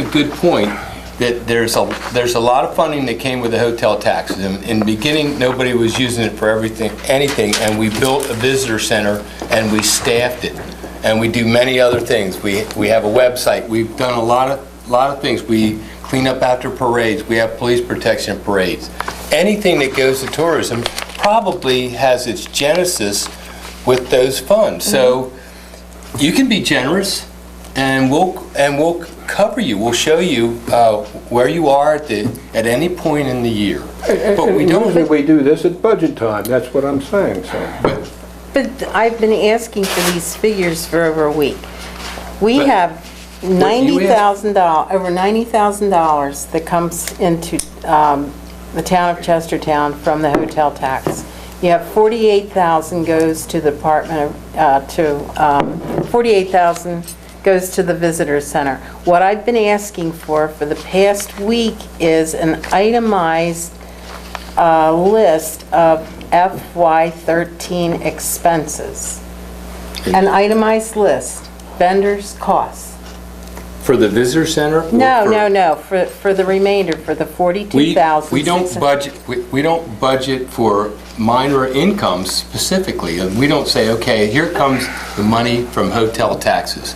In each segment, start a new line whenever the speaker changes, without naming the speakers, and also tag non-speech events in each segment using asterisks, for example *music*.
a good point, that there's a, there's a lot of funding that came with the hotel taxes. In in the beginning, nobody was using it for everything, anything, and we built a visitor center, and we staffed it, and we do many other things. We, we have a website, we've done a lot of, lot of things. We clean up after parades, we have police protection parades. Anything that goes to tourism probably has its genesis with those funds. So you can be generous, and we'll, and we'll cover you, we'll show you uh, where you are at the, at any point in the year. But we
And Usually
don't,
we do this at budget time, that's what I'm saying, so.
But I've been asking for these figures for over a week. We
But
have $90,000, over $90,000 that comes into um, the town of Chestertown from the hotel tax. You have $48,000 goes to the Department of, uh, to, um, $48,000 goes to the visitor center. What I've been asking for, for the past week, is an itemized a list of FY13 expenses, an itemized list, vendors' costs.
for the visitor center? or
No,
for-
no, no, for, for the remainder, for the
We,
42,000.
we don't budget, we we don't budget for minor incomes specifically. And We don't say, okay, here comes the money from hotel taxes.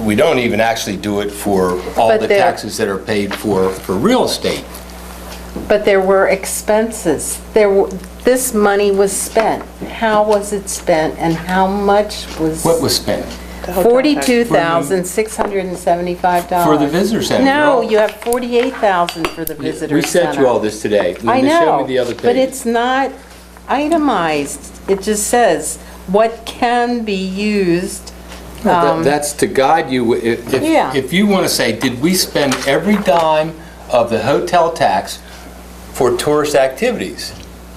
We don't even actually do it for all
But
the
there-
taxes that are paid for, for real estate.
But there were expenses. There, w- this money was spent. How was it spent and how much was?
What was spent?
$42,675.
For the visitor center,
No,
no.
you have 48,000 for the visitor center.
We sent you all this today. Linda,
I
Show
know,
me the other page.
but it's not itemized. It just says what can be used.
Well, that-
um,
That's to guide you, i- if,
Yeah.
if you want to say, did we spend every dime of the hotel tax for tourist activities?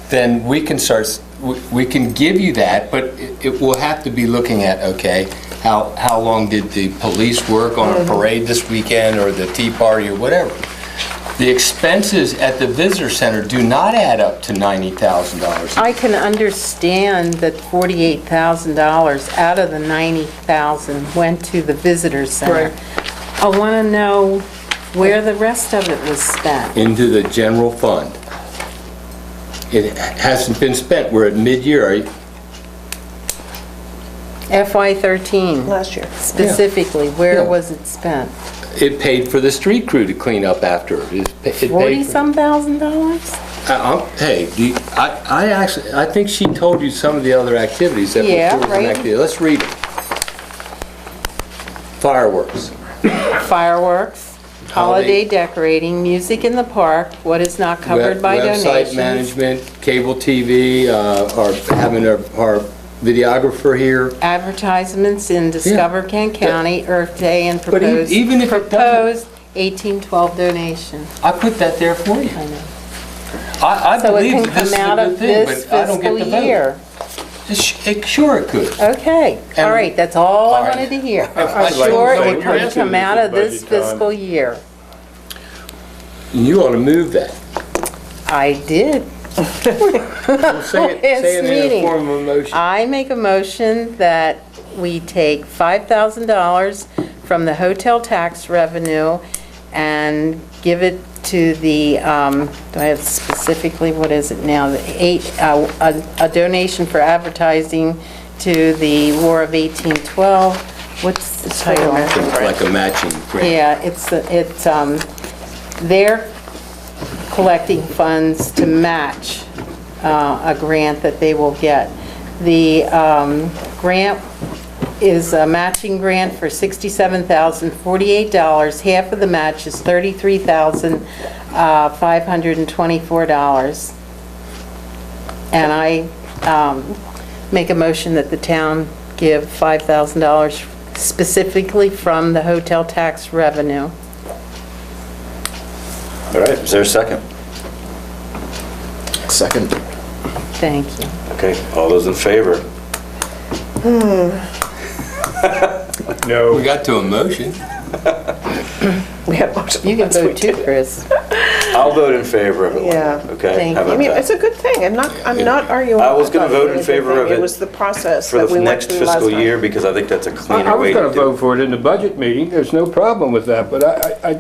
Then we can start, s- we- we can give you that, but it- it will have to be looking at, okay, how, how long did the police work on
Mm-hmm.
a parade this weekend, or the tea party, or whatever? The expenses at the visitor center do not add up to $90,000.
I can understand that $48,000 out of the 90,000 went to the visitor center. I want to know where the rest of it was spent.
into the general fund. It hasn't been spent, we're at mid-year, Are you-
FY13
last year.
specifically, where
Yeah.
was it spent?
it paid for the street crew to clean up after. it. It pa- it paid
40-some thousand dollars?
for- I- I'm- Hey, do you- I I actually, I think she told you some of the other activities that were
Yeah,
tourism
right.
activities. Let's read it. Fireworks.
Fireworks,
Holiday.
holiday decorating, music in the park, what is not
Web-
covered by
Website
donations.
management, cable TV, uh, our having our our videographer here.
Advertisements in Discover Kent County, Earth Day and
But e-
proposed,
even if it doesn't-
proposed 1812 donation.
I put that there for you.
I know.
I I
So it
believe
can
that this is a
come out
good
of
thing,
this
but I don't get
fiscal
the vote.
year.
Sh- it- Sure it could.
Okay,
And-
all right, that's all
All
I
right.
wanted to hear.
I'd like to
Sure,
say
it
you're
can come out of this fiscal year.
You ought to move that.
I did. *laughs*
Say it,
It's
say it in a
meeting. Uh,
form of a motion.
I make a motion that we take $5,000 from the hotel tax revenue and give it to the, um, do I have specifically, what is it now? The eight, uh, a a donation for advertising to the War of 1812. What's the title?
Like a matching grant.
Yeah, it's, it's, um, they're collecting funds to match uh, a grant that they will get. The um, grant is a matching grant for $67,048. Half of the match is uh, $33,524. And I um, make a motion that the town give $5,000 specifically from the hotel tax revenue.
All right, is there a second? Second.
Thank you.
Okay, all those in favor?
We got to a motion.
We have lots of
You can
ones we
vote too,
did.
Chris.
I'll vote in favor of it.
Yeah.
Okay,
Thank
how
you.
I
about
mean, it's
that?
a good thing, I'm not, I'm not arguing.
I was gonna
about
vote in
it. It was a good
favor of
thing.
it
It was the process
For
that
the
we went
next
through last
fiscal year,
time.
because I think that's a
I
cleaner
I was
way to do it.
gonna vote for it in the budget meeting, there's no problem with that, but I, I- I